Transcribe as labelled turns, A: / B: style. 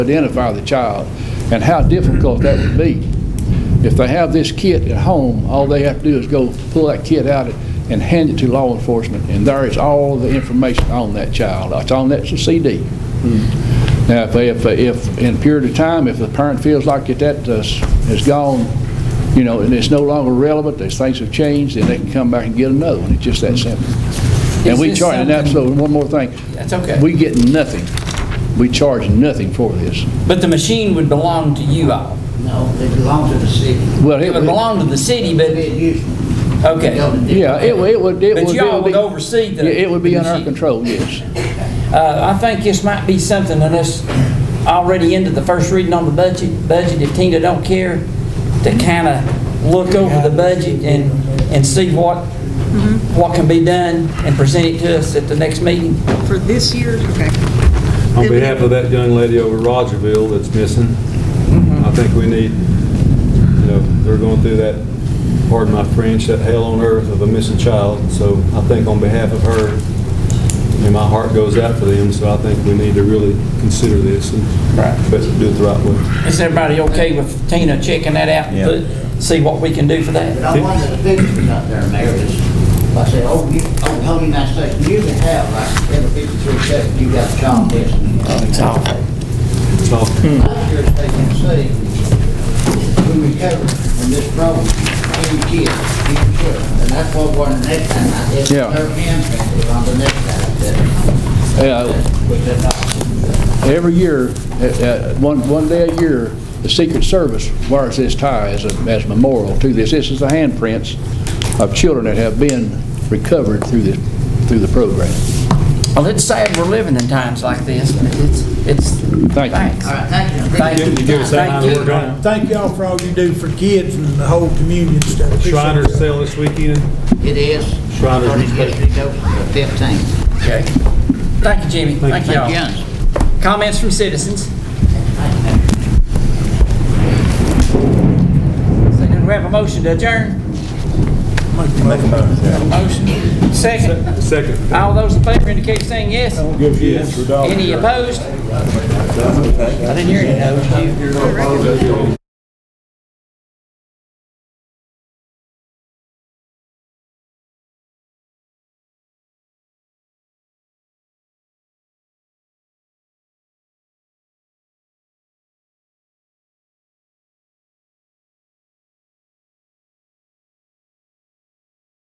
A: identify the child and how difficult that would be. If they have this kit at home, all they have to do is go pull that kit out and hand it to law enforcement, and there is all the information on that child. It's on that CD. Now, if, if, if in a period of time, if the parent feels like that that is is gone, you know, and it's no longer relevant, these things have changed, then they can come back and get another one. It's just that simple. And
B: Is
A: we
B: this
A: charge, and that's,
B: something-
A: one more thing.
B: That's okay.
A: We get nothing. We charge nothing for this.
B: But the machine would belong to you all.
C: No, they belong to the city.
A: Well,
B: It would belong to the city, but,
C: It used to be
B: okay.
C: on the-
A: Yeah, it would, it would. it
B: But
A: would- it
B: y'all
A: be-
B: would oversee the-
A: Yeah, It would be
B: the
A: under our
B: machine.
A: control, yes.
B: Uh, I think this might be something that us already into the first reading on the budget, budget, if Tina don't care, to kind of look over the budget and, and see what, what can be done and present it to us at the next meeting.
D: For this year, okay.
E: On behalf of that young lady over at Rogerville that's missing, I think we need, you know, they're going through that, pardon my French, that hell on earth of a missing child. So I think on behalf of her, I mean, my heart goes out for them, so I think we need to really consider this and
B: Right.
E: but do it the right way.
B: Is everybody okay with Tina checking that out and put, see what we can do for
C: But
B: that?
C: I wanted to pictures up there, Mayor, is, I said, oh, you, oh, whole United States, you can have like every fifty-three seconds, you got a child missing.
B: It's awful.
E: So,
C: Last year, as they can see, we recovered from this problem, every kid, every kid. And that's what one the next time I did,
A: Yeah.
C: their hands, on the next time I did,
A: Yeah,
C: which is not.
A: Every year, uh, uh, one, one day a year, the Secret Service wears this tie as a, as memorial to this. This is the handprints of children that have been recovered through this, through the program.
B: Well, it's sad we're living in times like this, but it's, it's,
A: Thank you.
B: thanks.
C: All right, thank you.
B: Thank you.
E: you give us that
B: Thank
E: line of work
B: you.
E: on it.
F: Thank y'all for all you do for kids and the whole community and stuff. Appreciate
E: Shriners
F: it.
E: sale this weekend.
C: It is.
E: Shriners
C: Started yesterday, Fifteen.
B: Okay. Thank you, Jimmy. Thank you all.
C: Young's.
B: Comments from citizens? So can we have a motion to adjourn? Motion. Second.
E: Second.
B: All those in favor indicate by saying yes.
E: Yes.
B: Any opposed? I didn't hear any opposed.